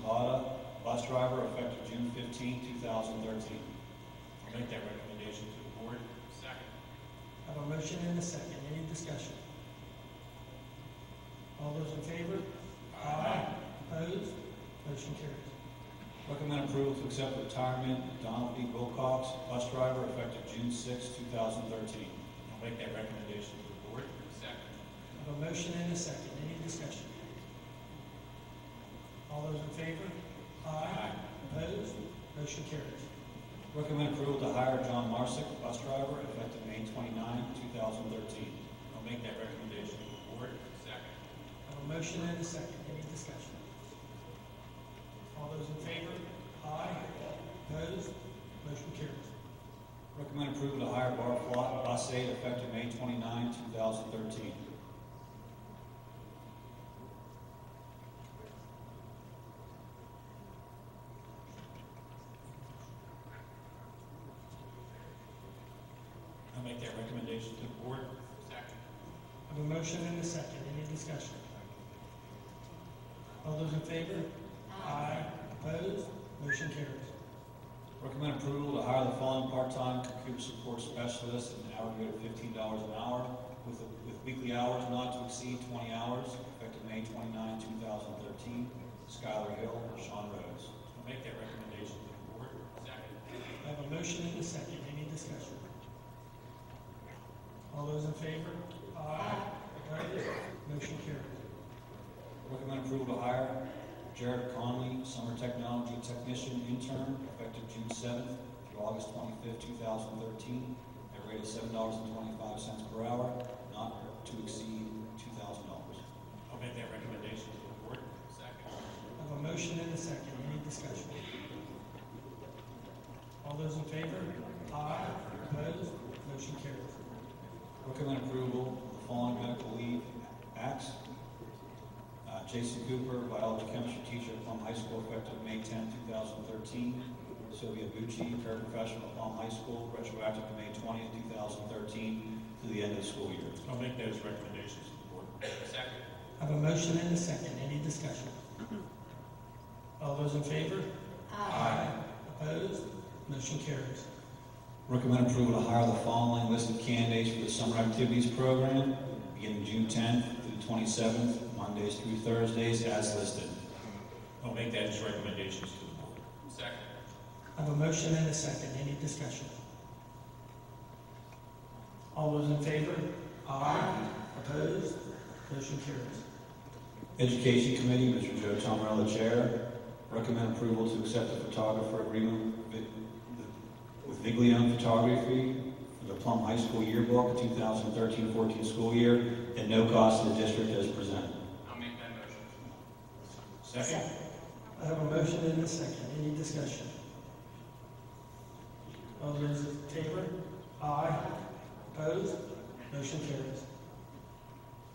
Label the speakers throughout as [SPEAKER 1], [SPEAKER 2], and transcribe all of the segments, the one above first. [SPEAKER 1] Zapata, bus driver, effective June 15, 2013. I'll make that recommendation to the board.
[SPEAKER 2] Second.
[SPEAKER 3] I have a motion and a second, any discussion? All those in favor? Opposed? Motion carries.
[SPEAKER 1] Recommend approval to accept the retirement of Donald B. Wilcox, bus driver, effective June 6, 2013. I'll make that recommendation to the board.
[SPEAKER 2] Second.
[SPEAKER 3] I have a motion and a second, any discussion? All those in favor? Opposed? Motion carries.
[SPEAKER 1] Recommend approval to hire John Marsick, bus driver, effective May 29, 2013. I'll make that recommendation to the board.
[SPEAKER 2] Second.
[SPEAKER 3] I have a motion and a second, any discussion? All those in favor? Opposed? Motion carries.
[SPEAKER 1] Recommend approval to hire Bart Flott, bus aide, effective May 29, 2013. I'll make that recommendation to the board.
[SPEAKER 2] Second.
[SPEAKER 3] I have a motion and a second, any discussion? All those in favor? Opposed? Motion carries.
[SPEAKER 1] Recommend approval to hire the following part-time computer support specialist at an hourly rate of fifteen dollars an hour with, with weekly hours not to exceed twenty hours, effective May 29, thousand thirteen. Skylar Hill, Sean Rhodes. I'll make that recommendation to the board.
[SPEAKER 2] Second.
[SPEAKER 3] I have a motion and a second, any discussion? All those in favor? Opposed? Motion carries.
[SPEAKER 1] Recommend approval to hire Jared Conley, summer technology technician intern, effective June seventh through August twenty-fifth, two thousand thirteen, at a rate of seven dollars and twenty-five cents per hour, not to exceed two thousand dollars. I'll make that recommendation to the board.
[SPEAKER 2] Second.
[SPEAKER 3] I have a motion and a second, any discussion? All those in favor? Opposed? Motion carries.
[SPEAKER 1] Recommend approval of the following medical leave acts. Uh, Jason Cooper, biology chemistry teacher at Plum High School, effective May 10, 2013. Sylvia Bucci, paraprofessional at Plum High School, retroactive to May 20, 2013, through the end of the school year. I'll make those recommendations to the board.
[SPEAKER 2] Second.
[SPEAKER 3] I have a motion and a second, any discussion? All those in favor? Opposed? Motion carries.
[SPEAKER 1] Recommend approval to hire the following listed candidates for the summer activities program, beginning June 10th through 27th, Mondays through Thursdays, as listed. I'll make that as recommendations to the board.
[SPEAKER 2] Second.
[SPEAKER 3] I have a motion and a second, any discussion? All those in favor? Opposed? Motion carries.
[SPEAKER 1] Education Committee, Mr. Joe Tomarella, Chair. Recommend approval to accept the photographer agreement with- with Viglione Photography for the Plum High School yearbook, 2013-14 school year, at no cost to the district as presented.
[SPEAKER 2] I'll make that motion.
[SPEAKER 3] I have a motion and a second, any discussion? All those in favor? Aye. Opposed? Motion carries.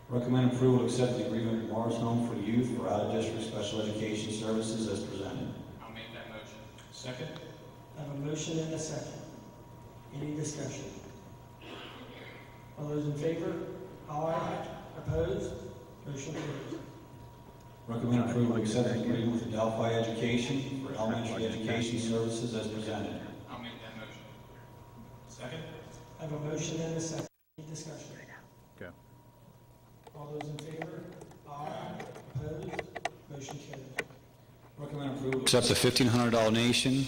[SPEAKER 1] Recommend approval to accept the agreement with Morris Home for Youth for out-of-district special education services as presented.
[SPEAKER 2] I'll make that motion.
[SPEAKER 1] Second.
[SPEAKER 3] I have a motion and a second, any discussion? All those in favor? Aye. Opposed? Motion carries.
[SPEAKER 1] Recommend approval to accept the agreement with Delphi Education for elementary education services as presented.
[SPEAKER 2] I'll make that motion.
[SPEAKER 1] Second.
[SPEAKER 3] I have a motion and a second, any discussion?
[SPEAKER 4] Go.
[SPEAKER 3] All those in favor? Aye. Opposed? Motion carries.
[SPEAKER 1] Recommend approval. Accept a $1,500 donation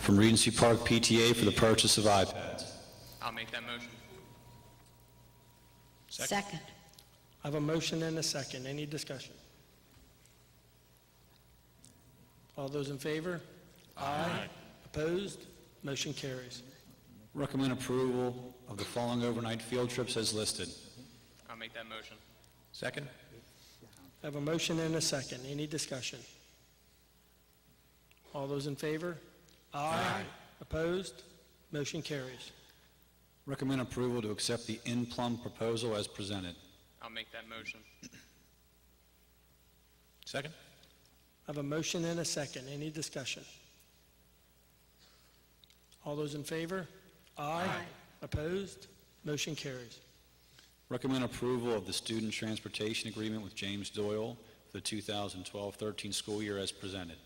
[SPEAKER 1] from Regency Park PTA for the purchase of iPads.
[SPEAKER 2] I'll make that motion.
[SPEAKER 5] Second.
[SPEAKER 3] I have a motion and a second. Any discussion? All those in favor? Aye. Opposed? Motion carries.
[SPEAKER 1] Recommend approval of the following overnight field trips as listed.
[SPEAKER 2] I'll make that motion.
[SPEAKER 4] Second?
[SPEAKER 3] I have a motion and a second. Any discussion? All those in favor? Aye. Opposed? Motion carries.
[SPEAKER 1] Recommend approval to accept the in-plum proposal as presented.
[SPEAKER 2] I'll make that motion.
[SPEAKER 4] Second?
[SPEAKER 3] I have a motion and a second. Any discussion? All those in favor? Aye. Opposed? Motion carries.
[SPEAKER 1] Recommend approval of the student transportation agreement with James Doyle for the 2012-13 school year as presented.